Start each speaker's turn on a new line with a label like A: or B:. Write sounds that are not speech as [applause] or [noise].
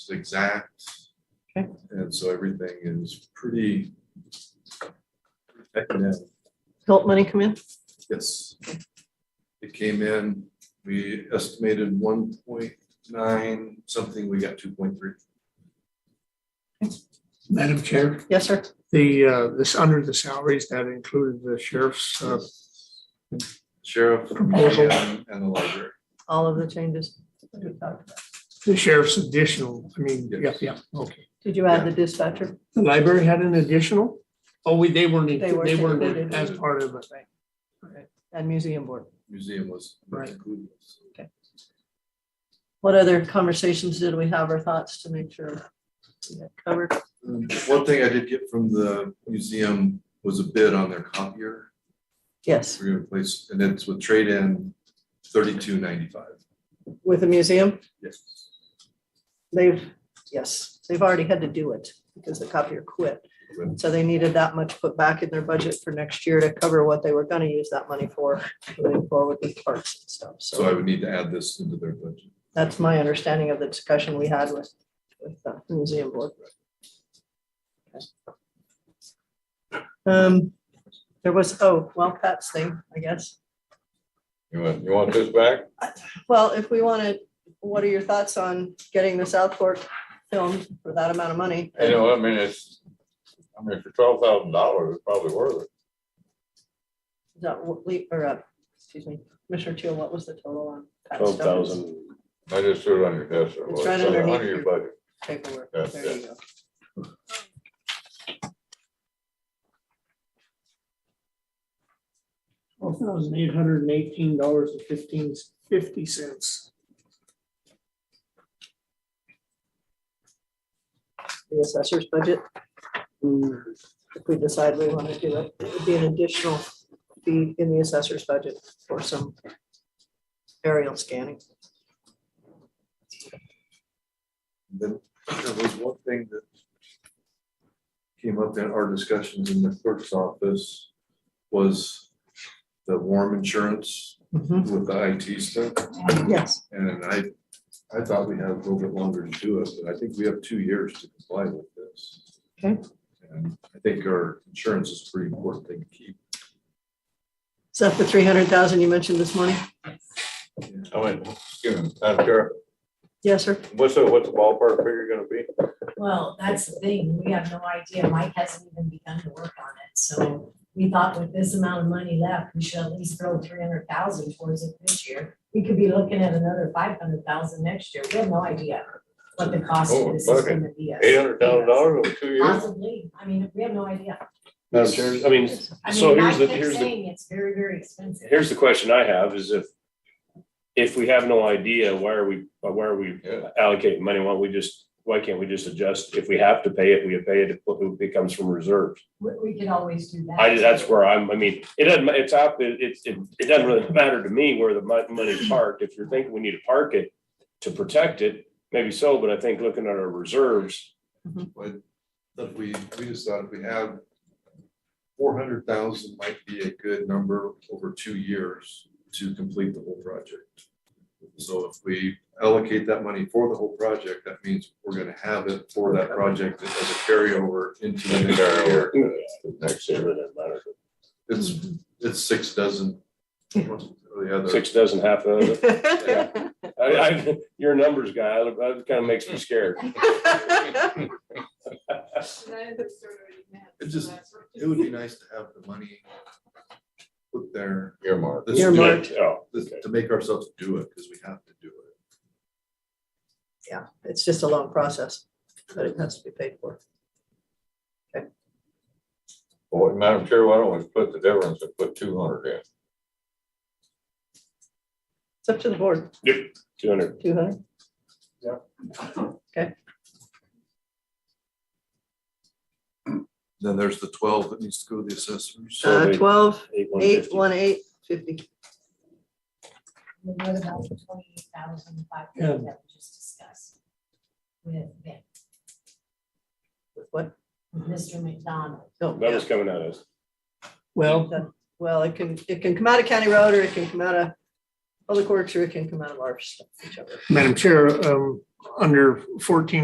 A: It's exact.
B: Okay.
A: And so everything is pretty. Yeah,
B: Help money come in?
A: Yes. It came in, we estimated one point nine something, we got two point three.
C: Madam Chair,
B: Yes, sir.
C: the, uh, this, under the salaries, that included the sheriff's, uh,
A: Sheriff,
C: Proposal.
A: museum, and the library.
B: All of the changes. that we talked about.
C: the sheriff's additional, I mean, yeah,
A: Yes.
C: yeah, okay.
B: Did you add the dispatcher?
C: The library had an additional? Oh, we, they weren't,
B: They weren't
C: they
B: included.
C: weren't as part of it.
B: And museum board?
A: Museum was
C: Right.
A: included.
B: What other conversations did we have or thoughts to make sure? we got Covered.
A: Um, One thing I did get from the museum was a bid on their copier.
B: Yes,
A: We're gonna place, and it's with trade-in thirty-two ninety-five.
B: with the museum,
A: Yes.
B: they've, yes, they've already had to do it because the copier quit. So they needed that much put back in their budget for next year to cover what they were gonna use that money for, moving forward with parks and stuff.
A: So I would need to add this into their budget.
B: That's my understanding of the discussion we had with, with the museum board. Um, there was, oh, well, Pat's thing, I guess.
D: You want, you want this back?
B: Well, if we want to, what are your thoughts on getting the Southport filmed for that amount of money?
D: You know, I mean, it's, I mean, for twelve thousand dollars, it's probably worth it.
B: Is that what we- or, uh, excuse me, Commissioner Teal, what was the total on? Pat's
E: Twelve
B: dollars?
E: thousand,
D: I just threw it on your desk. there,
B: It's
D: well,
B: right
D: it's under-
B: underneath
D: Under your
B: your-
D: budget.
B: Paperwork,
D: That's
B: there you go.
C: Twelve thousand eight hundred and eighteen dollars and fifteen, fifty cents.
B: The assessor's budget, Mm,
C: Well,
B: if we decide we want to do it, it would be an additional fee in the assessor's budget for some aerial scanning.
A: Then there was one thing that came up in our discussions in the clerk's office was the warm insurance
E: Mm-hmm.
A: with the IT stuff.
B: Yes,
A: And I, I thought we had a little bit longer to do it, but I think we have two years to comply with this.
B: Okay.
A: And I think our insurance is a pretty important thing to keep.
B: is that the three hundred thousand you mentioned this morning?
D: I mean, excuse me, Madam Chair,
B: Yes,
E: [laughs]
B: sir.
D: what's the, what's the ballpark figure gonna be?
F: Well, that's the thing, we have no idea, Mike hasn't even begun to work on it, so we thought with this amount of money left, we should at least throw three hundred thousand towards it this year. We could be looking at another five hundred thousand next year, we have no idea what the cost
D: Oh,
F: of this is
D: okay.
F: gonna be.
D: Eight hundred thousand dollars over two years?
F: Possibly, I mean, we have no idea.
E: Madam Chair, I mean,
F: I
E: so
F: mean, I
E: here's the,
F: kept
E: here's the,
F: saying it's very, very expensive.
E: here's the question I have is if, if we have no idea, why are we, why are we
D: Yeah.
E: allocating money? Why don't we just, why can't we just adjust? If we have to pay it, we pay it, if it comes from reserves.
F: We, we could always do that.
E: I, that's where I'm, I mean, it doesn't, ma- it's up, it, it's- it, it doesn't really matter to me where the mon- money's parked. If you're thinking we need to park it to protect it, maybe so, but I think looking at our reserves,
A: But if we, we just thought if we have four hundred thousand might be a good number over two years to complete the whole project. So if we allocate that money for the whole project, that means we're gonna have it for that project as a carryover into the next year.
D: Next
E: it
D: year.
E: really doesn't matter.
A: It's, it's six dozen. one or the other.
E: Six dozen, half of it.
A: Yeah.
E: I, I, you're a numbers guy. I- That kind of makes me scared.
A: It just- It would be nice to have the money put there,
D: Earmark.
A: This-
B: Earmarked.
E: Oh,
A: this- to make ourselves do it, because we have to do it.
B: Yeah, it's just a long process, but it has to be paid for.
D: Boy, Madam Chair, why don't we split the difference and put two hundred in?
B: It's up to the board,
E: two hundred.
B: two hundred.
A: Then there's the twelve that needs to go to the assessors.
B: Uh,
E: So they-
B: Twelve,
E: eight, one
B: eight,
E: fifty.
B: one, eight, fifty.
F: What about the twenty-eight thousand five
C: Yeah.
F: hundred that we just discussed? With Ben,
B: With What?
F: with Mr. McDonald.
B: No,
E: That
B: yeah.
E: was coming at us.
B: Well, it can, it can come out of county road or it can come out of public works or it can come out of our stuff, whichever.
C: Madam Chair, um, under fourteen